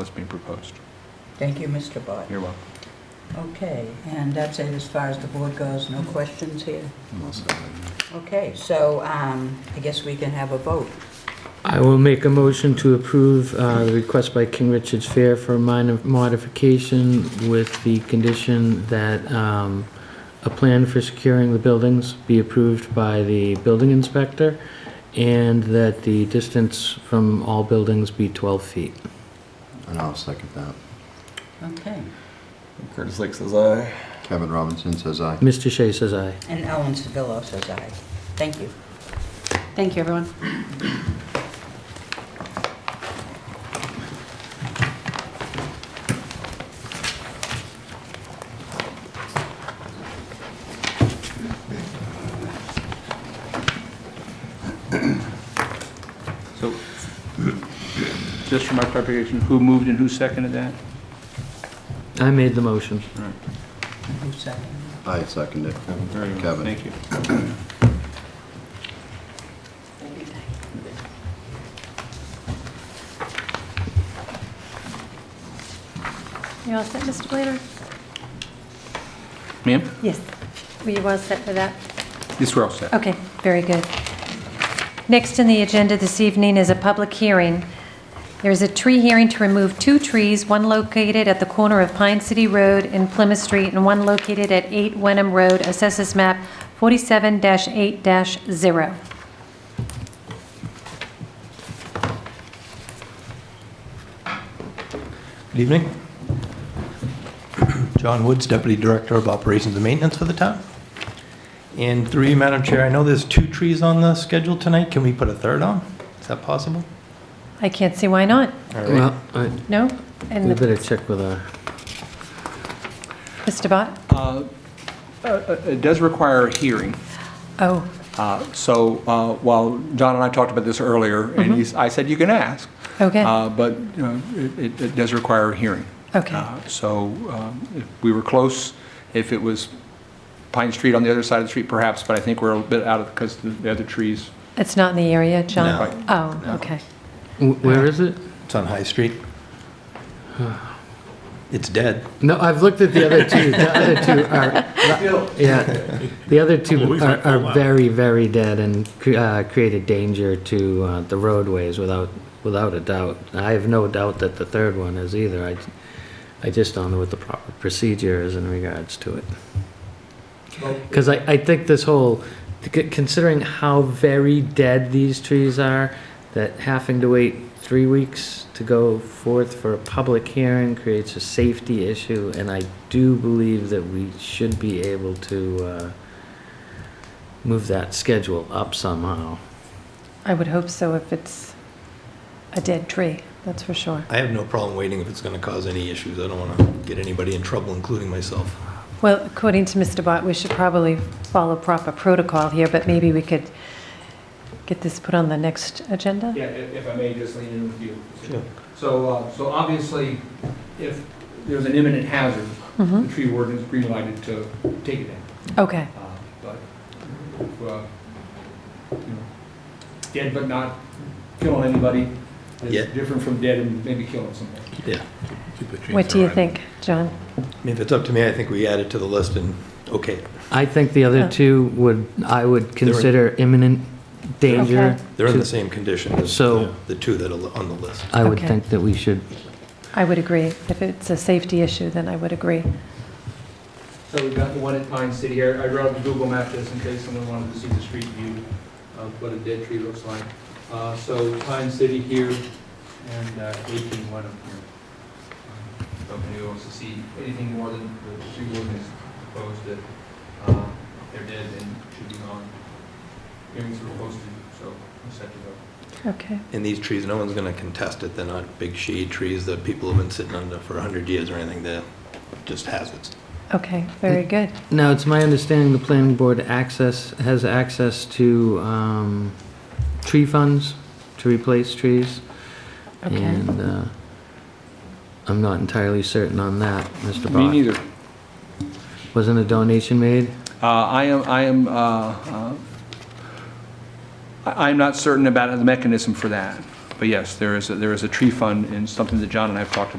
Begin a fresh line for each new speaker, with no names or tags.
what's being proposed.
Thank you, Mr. Bott.
You're welcome.
Okay, and that's it as far as the board goes. No questions here? Okay, so um, I guess we can have a vote.
I will make a motion to approve uh, the request by King Richard's Fair for a minor modification with the condition that um, a plan for securing the buildings be approved by the building inspector and that the distance from all buildings be 12 feet.
And I'll second that.
Okay.
Curtis Lake says aye.
Kevin Robinson says aye.
Mr. Shea says aye.
And Ellen Sedillo says aye. Thank you.
Thank you, everyone.
So, just for my clarification, who moved and who seconded that?
I made the motion.
Who's second?
I second it.
Very well,
Kevin.
Thank you.
You all set, Mr. Blader?
Ma'am,
Yes. Were you all set for that?
these were all set.
Okay, very good. Next on the agenda this evening is a public hearing. There is a tree hearing to remove two trees, one located at the corner of Pine City Road and Plymouth Street, and one located at 8 Wenham Road, Assessors Map 47-8-0.
Good evening. John Woods, Deputy Director of Operations and Maintenance for the town. And through you, Madam Chair, I know there's two trees on the schedule tonight. Can we put a third on? Is that possible?
I can't see why not.
All right.
Well, I-
No?
we
And the-
better check with our,
Mr. Bott?
Uh, uh, uh, It does require a hearing.
Oh,
Uh, So uh, while John and I talked about this earlier, and he's- I said you can ask,
okay,
uh, but you know, it- it it does require a hearing.
okay.
Uh, So um, if we were close, if it was Pine Street on the other side of the street perhaps, but I think we're a little bit out of, because the other trees.
It's not in the area, John?
Right.
Oh, okay.
wh- where is it?
It's on High Street. It's dead.
No, I've looked at the other two. The other two are, yeah, the other two are, are very, very dead and cre- uh, create a danger to uh, the roadways without, without a doubt. I have no doubt that the third one is either. I, I just don't know what the proper procedure is in regards to it. Because I, I think this whole, c- considering how very dead these trees are, that having to wait three weeks to go forth for a public hearing creates a safety issue, and I do believe that we should be able to uh, move that schedule up somehow.
I would hope so if it's a dead tree, that's for sure.
I have no problem waiting if it's going to cause any issues. I don't want to get anybody in trouble, including myself.
Well, according to Mr. Bott, we should probably follow proper protocol here, but maybe we could get this put on the next agenda?
Yeah, if if I may just lean in with you.
Sure.
So, uh, so obviously, if there's an imminent hazard, the
Mhm.
tree warden is green lighted to take it down.
Okay,
Uh, But, if, uh, you know, dead but not killing anybody
Yeah.
is different from dead and maybe killing somebody.
Yeah.
what do you think, John?
I mean, If it's up to me, I think we add it to the list and, okay,
I think the
Oh.
other two would, I would consider imminent
Okay.
danger.
they're in
to-
the same condition as
So-
the two that are on the list.
I would
Okay.
think that we should
I would agree. If it's a safety issue, then I would agree.
So we've got the one at Pine City here. I wrote up Google Map this in case someone wanted to see the street view of what a dead tree looks like. Uh, So Pine City here and uh, 18 Wenham here. Um, So if anyone wants to see anything more than the tree warden has proposed that uh, they're dead and should be gone. Hearings were posted, so I'm set to go.
Okay,
And these trees, no one's going to contest it. They're not big shade trees that people have been sitting under for 100 years or anything. They're just hazards.
okay, very good.
Now, it's my understanding the planning board access, has access to um, tree funds to replace trees.
Okay,
And uh, I'm not entirely certain on that, Mr. Bott.
Me neither.
Wasn't a donation made?
Uh, I am, I am, uh, uh, I- I'm not certain about the mechanism for that.
But yes, there is, a- there is a tree fund and something that John and I have talked about